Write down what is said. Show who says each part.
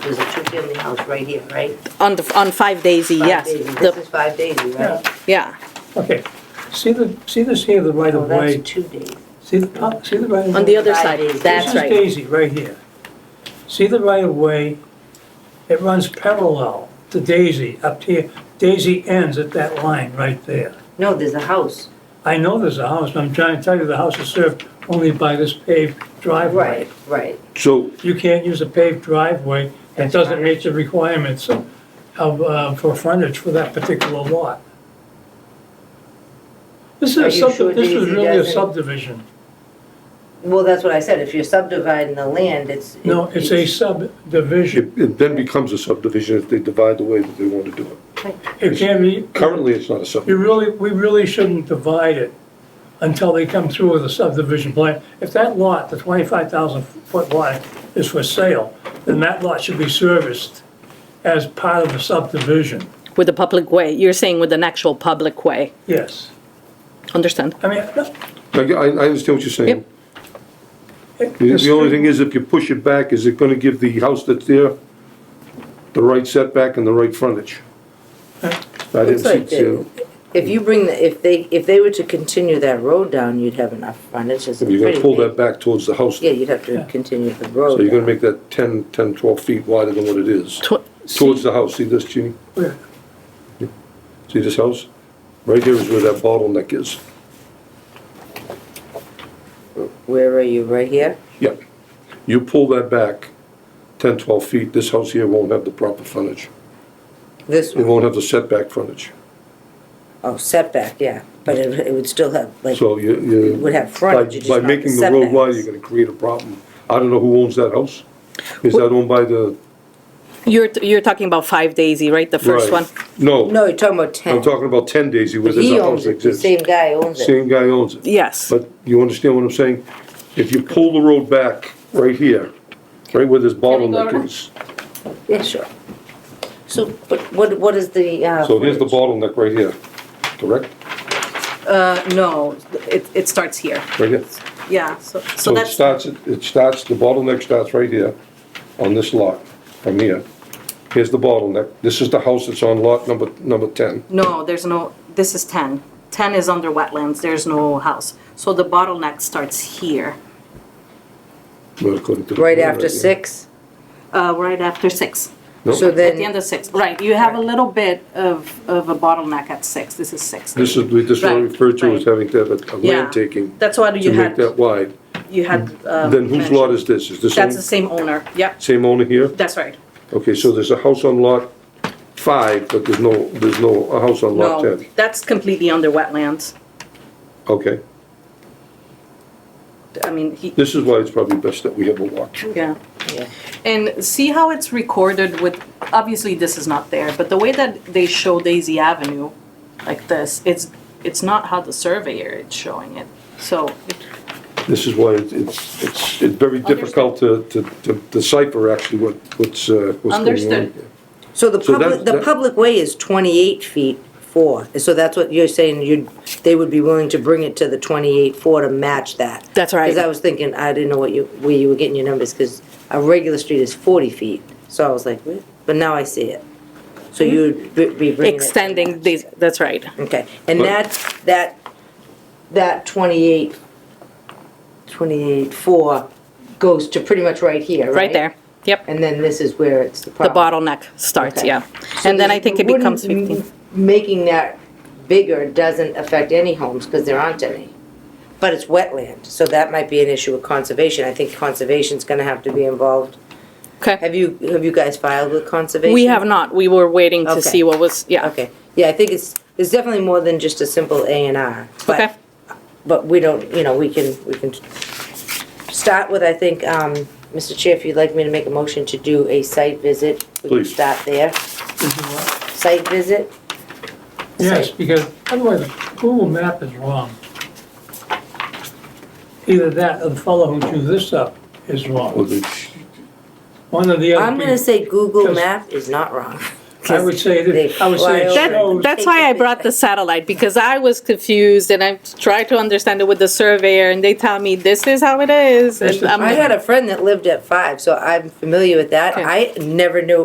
Speaker 1: is a two-family house right here, right?
Speaker 2: On the, on Five Daisy,
Speaker 1: Five
Speaker 2: yes.
Speaker 1: Daisy.
Speaker 2: The-
Speaker 1: This is five Daisy, right?
Speaker 2: Yeah,
Speaker 3: Yeah, okay. See the, see this here, the right
Speaker 1: Oh,
Speaker 3: of
Speaker 1: that's
Speaker 3: way?
Speaker 1: two Daisy.
Speaker 3: See the, top- see the right of way?
Speaker 2: on the other
Speaker 1: Five
Speaker 2: side,
Speaker 1: Daisy.
Speaker 2: that's right.
Speaker 3: This is Daisy, right here. See the right of way? It runs parallel to Daisy up here. Daisy ends at that line right there.
Speaker 1: No, there's a house.
Speaker 3: I know there's a house, I'm trying to tell you, the house is served only by this paved driveway.
Speaker 1: Right.
Speaker 4: So,
Speaker 3: You can't use a paved driveway that
Speaker 1: That's
Speaker 3: doesn't
Speaker 1: right.
Speaker 3: meet the requirements of, uh, for frontage for that particular lot. This
Speaker 1: Are you
Speaker 3: is, sub-
Speaker 1: sure
Speaker 3: this is
Speaker 1: Daisy
Speaker 3: really a
Speaker 1: doesn't-
Speaker 3: subdivision.
Speaker 1: Well, that's what I said, if you're subdividing the land, it's.
Speaker 3: No, it's a subdivision.
Speaker 4: it it then becomes a subdivision if they divide the way that they want to do it.
Speaker 3: It can be,
Speaker 4: Currently, it's not a
Speaker 3: you
Speaker 4: subdivision.
Speaker 3: really, we really shouldn't divide it until they come through with a subdivision plan. If that lot, the twenty-five thousand foot lot, is for sale, then that lot should be serviced as part of the subdivision,
Speaker 2: With the public way, you're saying with an actual public way.
Speaker 3: yes.
Speaker 2: Understand?
Speaker 3: I mean,
Speaker 4: I, I I understand what you're saying.
Speaker 2: Yep.
Speaker 3: it-
Speaker 4: The
Speaker 3: this
Speaker 4: the only thing is, if you push it back, is it gonna give the house that's there the right setback and the right frontage? I didn't
Speaker 1: Looks like
Speaker 4: see, you
Speaker 1: If you bring, the if they, if they were to continue that road down, you'd have enough frontage, it's a
Speaker 4: you're
Speaker 1: pretty
Speaker 4: gonna pull
Speaker 1: big-
Speaker 4: that back towards the house.
Speaker 1: Yeah, you'd have to continue the road.
Speaker 4: So you're gonna
Speaker 1: down.
Speaker 4: make that 10, 10, 12 feet wider than what it is.
Speaker 2: Tw-
Speaker 4: Towards the house, see this, Jeannie?
Speaker 3: Where?
Speaker 4: See this house? Right here is where that bottleneck is.
Speaker 1: Where are you, right here?
Speaker 4: Yeah. You pull that back 10, 12 feet, this house here won't have the proper frontage.
Speaker 1: This
Speaker 4: It
Speaker 1: one,
Speaker 4: won't have the setback frontage.
Speaker 1: oh, setback, yeah, but it, it would still have, like,
Speaker 4: So you, you.
Speaker 1: It would have
Speaker 4: By,
Speaker 1: frontage, it's
Speaker 4: by
Speaker 1: just not the
Speaker 4: making the road wider,
Speaker 1: setbacks.
Speaker 4: you're gonna create a problem. I don't know who owns that house. Is that owned by the?
Speaker 2: You're, you're talking about Five Daisy, right? The first
Speaker 4: right.
Speaker 2: one?
Speaker 4: No,
Speaker 1: no, you're talking about 10
Speaker 4: I'm talking about ten Daisy where
Speaker 1: But
Speaker 4: there's
Speaker 1: he
Speaker 4: a house
Speaker 1: owns
Speaker 4: that
Speaker 1: it, the
Speaker 4: exists.
Speaker 1: same guy owns it.
Speaker 4: Same guy owns it.
Speaker 2: Yes.
Speaker 4: But you understand what I'm saying? If you pull the road back right here, right where this bottleneck is.
Speaker 1: Yeah, sure. So, but what, what is the, uh?
Speaker 4: So here's the bottleneck right here, correct?
Speaker 2: Uh, no, it, it starts here.
Speaker 4: Right here.
Speaker 2: Yeah, so,
Speaker 4: So it starts, it starts, the bottleneck starts right here on this lot, from here. Here's the bottleneck. This is the house that's on lot number, number ten.
Speaker 2: No, there's no, this is 10. 10 is under wetlands, there's no house. So the bottleneck starts here,
Speaker 4: Well, according to the
Speaker 1: Right
Speaker 4: plan
Speaker 1: after
Speaker 4: here.
Speaker 1: six?
Speaker 2: uh, right after 6.
Speaker 4: No.
Speaker 1: So
Speaker 2: At the end
Speaker 1: then,
Speaker 2: of 6, right. You have a little bit of, of a bottleneck at 6. This is 6.
Speaker 4: This is, this is what we
Speaker 2: Right,
Speaker 4: refer to as
Speaker 2: right.
Speaker 4: having to have a- a
Speaker 2: Yeah.
Speaker 4: land taking
Speaker 2: That's why
Speaker 4: to
Speaker 2: you
Speaker 4: make
Speaker 2: had,
Speaker 4: that wide.
Speaker 2: you had. um,
Speaker 4: Then whose lot
Speaker 2: mentioned.
Speaker 4: is this? Is this
Speaker 2: That's the
Speaker 4: own-
Speaker 2: same owner, yep,
Speaker 4: same owner here?
Speaker 2: that's right.
Speaker 4: Okay, so there's a house on lot five, but there's no, there's no, a house on lot
Speaker 2: No,
Speaker 4: ten.
Speaker 2: that's completely under wetlands.
Speaker 4: Okay,
Speaker 2: I mean, he,
Speaker 4: this is why it's probably best that we have a walkthrough.
Speaker 2: yeah.
Speaker 1: Yeah.
Speaker 2: And see how it's recorded with, obviously this is not there, but the way that they show Daisy Avenue like this, it's, it's not how the surveyor is showing it. So,
Speaker 4: This is why it- it's, it's, it's very difficult to, to to decipher actually what, what's, uh, what's going on.
Speaker 2: Understood.
Speaker 4: here.
Speaker 1: so the
Speaker 4: so
Speaker 1: public,
Speaker 4: that-
Speaker 1: the
Speaker 4: that-
Speaker 1: public way is twenty-eight feet four, so that's what you're saying, you'd, they would be willing to bring it to the twenty-eight four to match that?
Speaker 2: That's right.
Speaker 1: Cause I was thinking, I didn't know what you, where you were getting your numbers, cause a regular street is forty feet, so I was like, what? But now I see it. So you'd be be bringing it.
Speaker 2: extending this, that's right.
Speaker 1: Okay, and
Speaker 4: But-
Speaker 1: that, that, that 28, 28, 4 goes to pretty much right here, right?
Speaker 2: Right there, yep.
Speaker 1: And then this is where it's the
Speaker 2: The
Speaker 1: problem.
Speaker 2: bottleneck starts,
Speaker 1: Okay.
Speaker 2: yeah.
Speaker 1: So
Speaker 2: And then I
Speaker 1: this-
Speaker 2: think it
Speaker 1: wouldn't
Speaker 2: becomes
Speaker 1: m-
Speaker 2: 15.
Speaker 1: Making that bigger doesn't affect any homes, because there aren't any. But it's wetland, so that might be an issue with conservation. I think conservation's gonna have to be involved.
Speaker 2: Okay.
Speaker 1: Have you, have you guys filed with conservation?
Speaker 2: We have not, we were waiting to
Speaker 1: Okay.
Speaker 2: see what was, yeah.
Speaker 1: Okay, yeah, I think it's, it's definitely more than just a simple A and R. but-
Speaker 2: Okay,
Speaker 1: but we don't, you know, we can, we can start with, I think, um, Mr. Chair, if you'd like me to make a motion to do a site visit, we can
Speaker 4: Please.
Speaker 1: start there. Site visit,
Speaker 3: Yes, because otherwise Google map is wrong. Either that or the fellow who drew this up is
Speaker 4: Well,
Speaker 3: wrong.
Speaker 4: it's-
Speaker 3: One or the other.
Speaker 1: I'm gonna
Speaker 3: people.
Speaker 1: say Google
Speaker 3: Just-
Speaker 1: Map is not wrong.
Speaker 3: I would say
Speaker 1: They
Speaker 3: that, I would say it
Speaker 1: fly over.
Speaker 3: shows.
Speaker 1: That-
Speaker 2: That's why I brought the satellite, because I was confused and I tried to understand it with the surveyor and they tell me this is how it is. and
Speaker 3: This is-
Speaker 2: I'm
Speaker 1: I
Speaker 2: like-
Speaker 1: had a friend that lived at five, so I'm familiar with that.
Speaker 2: Okay.
Speaker 1: I never knew